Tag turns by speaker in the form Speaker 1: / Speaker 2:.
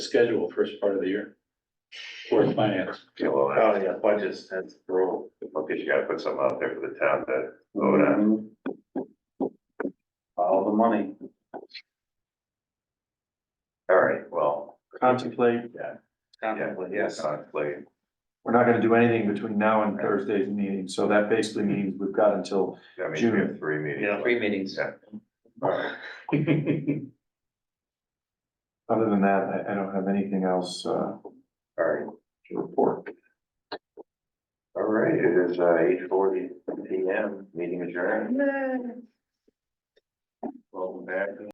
Speaker 1: schedule first part of the year? For finance,
Speaker 2: Yeah, well,
Speaker 3: Oh,
Speaker 2: I
Speaker 3: yeah, budgets, that's brutal.
Speaker 2: guess you gotta put something out there for the town to vote on.
Speaker 3: Mm-hmm. Follow the money,
Speaker 2: All right, well,
Speaker 4: contemplate,
Speaker 2: yeah,
Speaker 3: contemplate,
Speaker 2: yes,
Speaker 3: yes.
Speaker 2: on play.
Speaker 4: we're not gonna do anything between now and Thursday's meeting, so that basically means we've got until,
Speaker 2: I mean, we
Speaker 4: June.
Speaker 2: have three meetings.
Speaker 3: Yeah,
Speaker 5: Three meetings.
Speaker 2: Yeah. All right,
Speaker 4: other than that, I, I don't have anything else, uh,
Speaker 2: all right,
Speaker 4: to report.
Speaker 2: all right, it is uh eight forty P M, meeting adjourned. Welcome back.